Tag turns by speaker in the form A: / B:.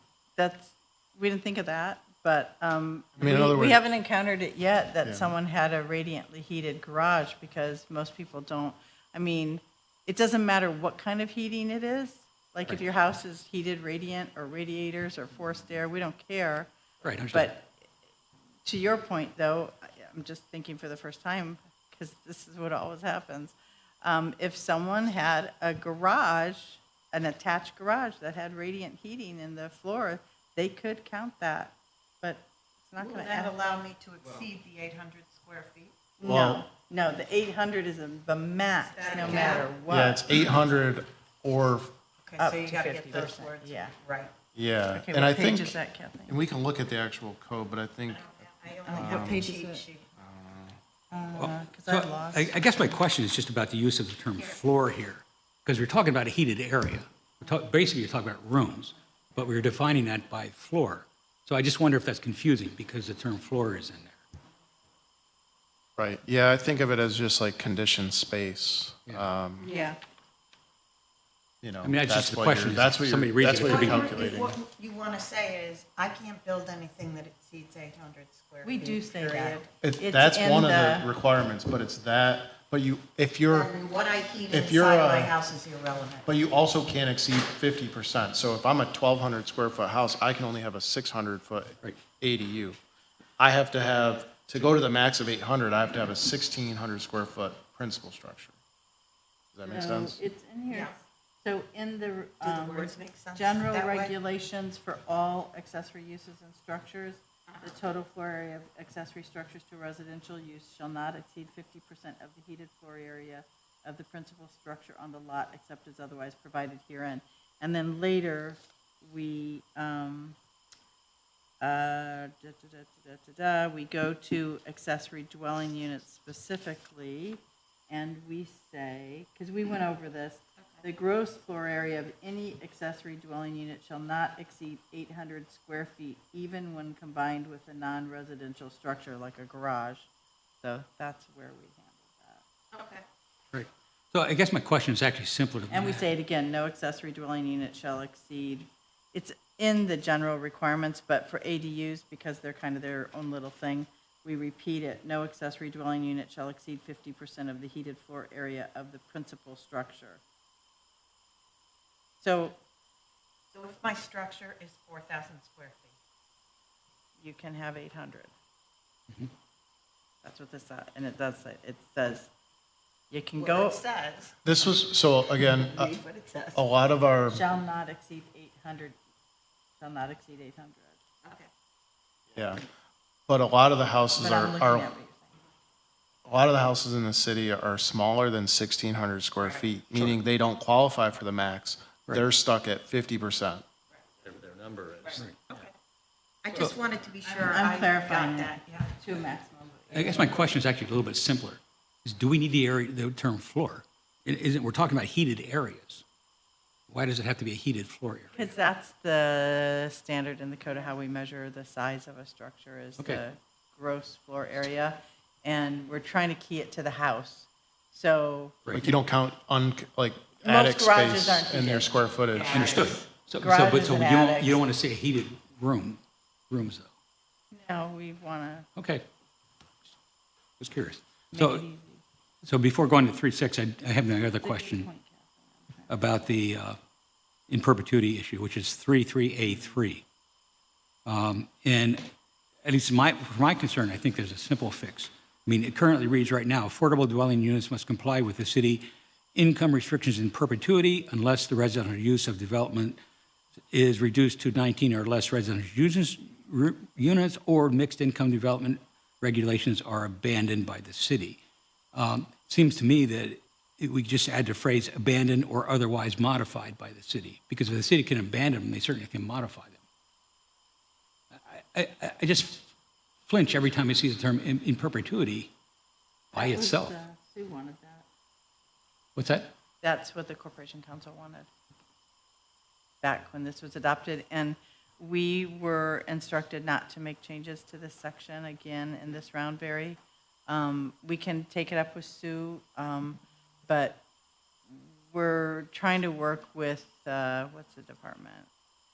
A: that's, we didn't think of that, but um,
B: I mean, in
A: we-
B: other
A: we
B: words-
A: haven't encountered it yet
B: Yeah.
A: that someone had a radiantly heated garage because most people don't, I mean, it doesn't matter what kind of heating it is. Like if your house is heated radiant or radiators or forced air, we don't care.
C: Right, I understand.
A: But to your point, though, I- I'm just thinking for the first time, because this is what always happens. Um, if someone had a garage, an attached garage that had radiant heating in the floor, they could count that, but it's not
D: Will
A: gonna
D: that
A: add.
D: allow me to exceed the 800 square feet?
A: No, no, the eight hundred is the max,
D: Is that a
A: no
D: cap?
A: matter what.
B: Yeah, it's 800 or,
D: Okay,
A: Up
D: so you
A: to
D: got to get those
A: 50%,
D: words
A: yeah.
D: right.
B: yeah.
A: Okay,
B: And I
A: what page
B: think,
A: is that, Kathleen?
B: and we can look at the actual code, but I think,
D: I only have a cheat sheet.
A: Because
C: So
A: I've lost.
C: I I guess my question is just about the use of the term floor here, because we're talking about a heated area. We're talk- Basically, you're talking about rooms, but we're defining that by floor. So I just wonder if that's confusing, because the term floor is in there.
B: right, yeah, I think of it as just like conditioned space. Um,
A: Yeah.
B: You know,
C: I mean, that's just the
B: what you're-
C: question is
B: That's what
C: somebody
B: you're, that's
C: reads it,
B: what
C: it could
B: you're
C: be-
B: calculating.
D: What you want to say is, I can't build anything that exceeds 800 square feet.
A: We do say that.
D: period.
B: It-
A: It's
B: That's
A: in
B: one of the requirements, but it's that, but you, if you're.
D: And what I heat
B: If you're,
D: inside my
B: uh,
D: house is irrelevant.
B: But you also can't exceed fifty percent. So if I'm a twelve hundred square foot house, I can only have a six hundred foot
C: Right.
B: ADU. I have to have, to go to the max of eight hundred, I have to have a sixteen hundred square foot principal structure. Does that make
A: So
B: sense?
A: It's in here,
D: Yeah.
A: so in the,
D: the
A: um,
D: words make sense
A: general
D: that way?
A: regulations for all accessory uses and structures,
D: Uh-huh.
A: the total floor area of accessory structures to residential use shall not exceed fifty percent of the heated floor area of the principal structure on the lot except as otherwise provided herein. And then later, we, um, uh, da, da, da, da, da, da, da, we go to accessory dwelling units specifically, and we say, because we went over this, the gross floor area of any accessory dwelling unit shall not exceed eight hundred square feet, even when combined with a non-residential structure like a garage. So that's where we handle
D: Okay.
C: Right. So I guess my question is actually simpler
A: that. And
C: than
A: we
C: that.
A: say it again, no accessory dwelling unit shall exceed, it's in the general requirements, but for ADUs, because they're kind of their own little thing, we repeat it, no accessory dwelling unit shall exceed fifty percent of the heated floor area of the principal structure. So
D: So if my structure is 4,000 square feet,
A: you can have eight hundred. That's what this, sa- and it does say, it says, you can
D: what
A: go,
D: it says,
B: This was, so again, a,
D: read what it says.
B: a lot of our,
A: shall not exceed eight hundred, shall not exceed eight hundred.
D: Okay.
B: yeah, but a lot of the houses
A: But
B: are,
A: I'm looking at what
B: are,
A: you're saying.
B: a lot of the houses in the city are smaller than sixteen hundred square feet, meaning they don't qualify for the max. They're stuck at fifty percent.
D: I just wanted to be sure
A: I'm
D: I got
A: clarifying
D: that,
A: it.
D: yeah.
A: To a maximum.
C: I guess my question is actually a little bit simpler, is do we need the area, the term floor? It Isn't, we're talking about heated areas. Why does it have to be a heated floor area?
A: Because that's the standard in the code of how we measure the size of a structure is
C: Okay.
A: the gross floor area. And we're trying to key it to the house. So
B: Like you don't count un, like
A: Most
B: attic
A: garages
B: space
A: aren't
B: in your
A: heated.
B: square footage.
C: Understood. So, so, but
A: Garages
C: so you
A: and
C: don't,
A: attics.
C: you don't want to say heated room, rooms though.
A: now we want to
C: Okay. Just curious.
A: make it
C: So,
A: easy.
C: so before going to three six, I, I have another question
A: Point, Kathy.
C: about the uh, in perpetuity issue, which is 33A3. Um, And at least my, for my concern, I think there's a simple fix. I mean, it currently reads right now, affordable dwelling units must comply with the city income restrictions in perpetuity unless the residential use of development is reduced to 19 or less residential uses, ru- units or mixed income development regulations are abandoned by the city. Um, Seems to me that it- we just add the phrase abandoned or otherwise modified by the city, because if the city can abandon them, they certainly can modify them. I, I- I just flinch every time I see the term in, in perpetuity by
A: That was,
C: itself.
A: uh, Sue wanted that.
C: What's that?
A: That's what the Corporation Council wanted back when this was adopted. And we were instructed not to make changes to this section again in this round, Barry. Um, We can take it up with Sue, um, but we're trying to work with, uh, what's the department?